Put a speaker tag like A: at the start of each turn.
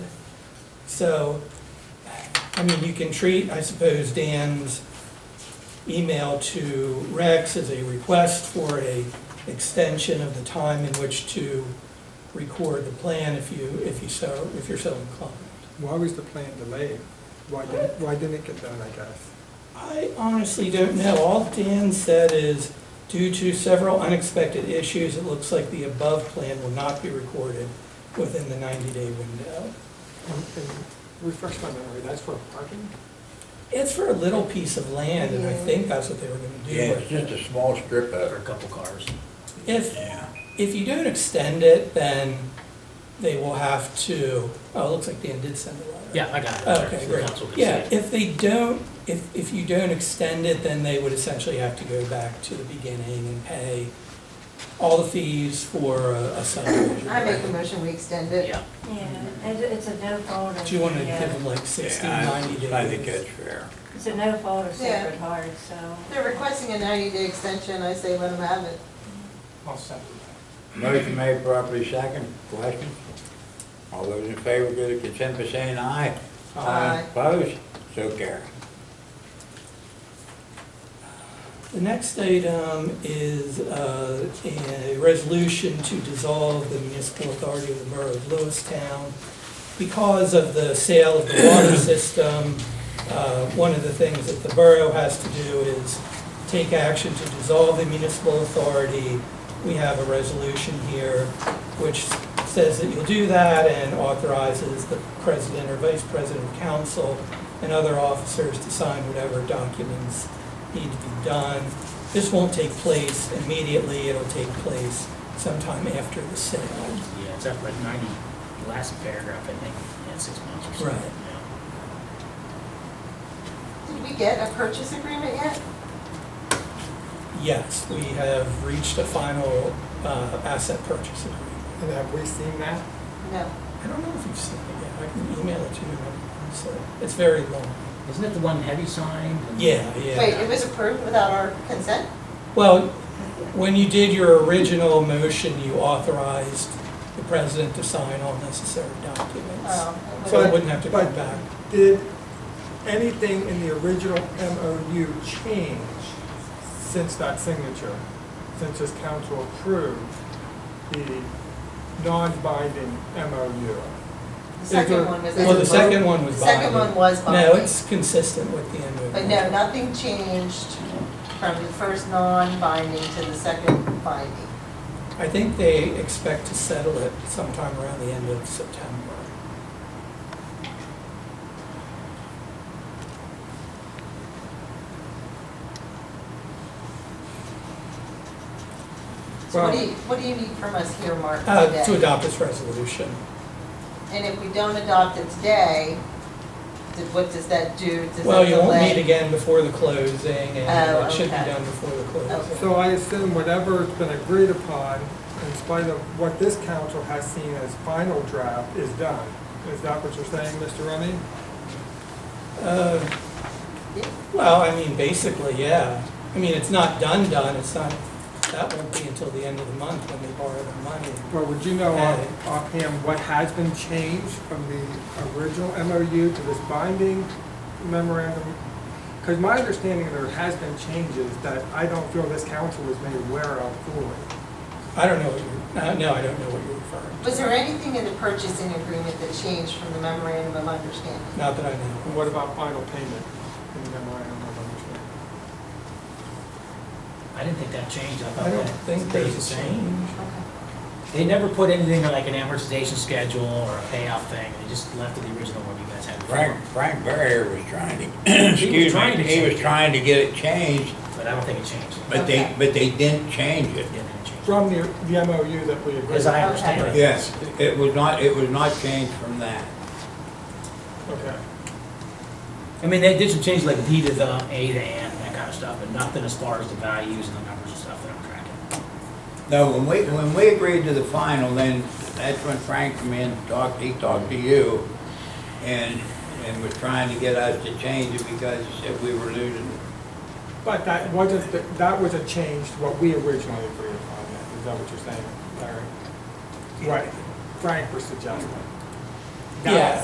A: So, I mean, you can treat, I suppose, Dan's email to Rex as a request for a extension of the time in which to record the plan if you, if you so, if you're so inclined.
B: Why was the plan delayed? Why didn't, why didn't it get done, I guess?
A: I honestly don't know. All Dan said is, due to several unexpected issues, it looks like the above plan will not be recorded within the 90-day window.
B: And and refresh my memory, that's for parking?
A: It's for a little piece of land, and I
C: Yeah.
A: think that's what they were gonna do.
D: Yeah, it's
A: with it.
D: just a small strip
E: for a
D: of it.
E: couple cars.
A: If,
D: Yeah.
A: if you don't extend it, then they will have to, oh, it looks like Dan did send a letter.
E: Yeah, I got it.
A: Okay,
E: The
A: great.
E: council can see
A: Yeah,
E: it.
A: if they don't, if, if you don't extend it, then they would essentially have to go back to the beginning and pay all the fees for a a subdivision.
C: I make a motion, we extend it.
E: Yeah,
F: Yeah, it- it's a no fault of.
A: Do you want to
F: the,
A: give
F: uh,
A: them like 60,
D: Yeah,
A: 90 days?
D: I think that's fair.
F: It's a no fault of
C: Yeah.
F: Sacred Heart, so.
C: They're requesting a 90-day extension, I say let them have it.
B: I'll second
D: Motion made properly second. Question? All those in favor, give their consent by saying aye.
A: Uh,
C: Aye.
D: Opposed? So carry.
A: The next item is uh, a resolution to dissolve the municipal authority of the borough of Lewistown. Because of the sale of the water system, uh, one of the things that the borough has to do is take action to dissolve the municipal authority. We have a resolution here which says that you'll do that and authorizes the president or vice president of council and other officers to sign whatever documents need to be done. This won't take place immediately, it'll take place sometime after the sale.
E: yeah, it's up like ninety, last paragraph, I think, yeah, six months or
A: Right.
E: something. yeah.
C: Did we get a purchase agreement yet?
A: Yes, we have reached a final uh, asset purchase agreement.
B: And have we seen that?
C: No.
A: I don't know if you've seen it yet, I can email it to you, so, it's very long.
E: Isn't it the one heavy signed? and-
A: Yeah,
C: Wait,
A: yeah.
C: it was approved without our consent?
A: Well, when you did your original motion, you authorized the president to sign all necessary documents.
C: Oh,
A: So it
C: okay.
A: wouldn't have to come
B: But-
A: back.
B: Did anything in the original MOU change since that signature? Since this council approved the non-binding MOU?
C: The second one was.
B: Is it-
A: Well, the second one
C: The
A: was binding.
C: second one was
A: No,
C: binding.
A: it's consistent with the MOU.
C: But no, nothing changed from the first non-binding to the second binding.
A: I think they expect to settle it sometime around the end of September.
C: So what do
B: Well-
C: you, what do you need from us here, Mark,
A: Uh, To
C: today?
A: adopt this resolution.
C: And if we don't adopt it today, did- what does that do? Does
A: Well,
C: that
A: you won't meet
C: delay?
A: again before the closing, and
C: Oh,
A: it should be
C: okay.
A: done before the
C: Okay.
A: closing.
B: So I assume whatever's been agreed upon, in spite of what this council has seen as final draft, is done. Is that what you're saying, Mr. Remy?
A: Uh,
C: Yeah.
A: Well, I mean, basically, yeah. I mean, it's not done, done, it's not, that won't be until the end of the month when they borrow the money.
B: Well, would you know off- offhand what has been changed from the original MOU to this binding memorandum? Because my understanding there has been changes that I don't feel this council was made aware of fully.
A: I don't know what you're, uh, no, I don't know what you're referring
C: Was there anything in the purchasing agreement that changed from the memorandum of understanding?
A: to, not that I know.
B: And what about final payment in the memorandum of understanding?
E: I didn't think that changed, I thought
A: I
E: that.
A: don't think
E: stayed
A: they
E: the same.
A: change.
E: They never put anything like an amortization schedule or a payoff thing, they just left it the original one you guys had. before.
D: Frank, Frank Barrier was trying to, excuse
E: trying
D: me,
E: to
D: he was
E: change it.
D: trying to get it changed,
E: But I don't think it changed.
D: but they,
C: Okay.
D: but they didn't change it.
E: Yeah, it didn't change.
B: From the, the MOU that we agreed.
E: As I
C: Okay.
E: understand it.
D: Yes, it was not, it was not changed from that.
B: Okay.
E: I mean, they did some changes like D to the, A to N, that kind of stuff, but nothing as far as the values and the numbers and stuff that I'm tracking.
D: No, when we, when we agreed to the final, then that's when Frank came in, talked, he talked to you and, and was trying to get us to change it because he said we were losing.
B: But that wasn't, the- that was a change to what we originally agreed upon, then. is that what you're saying, Larry? What Frank was suggesting?
A: Yeah,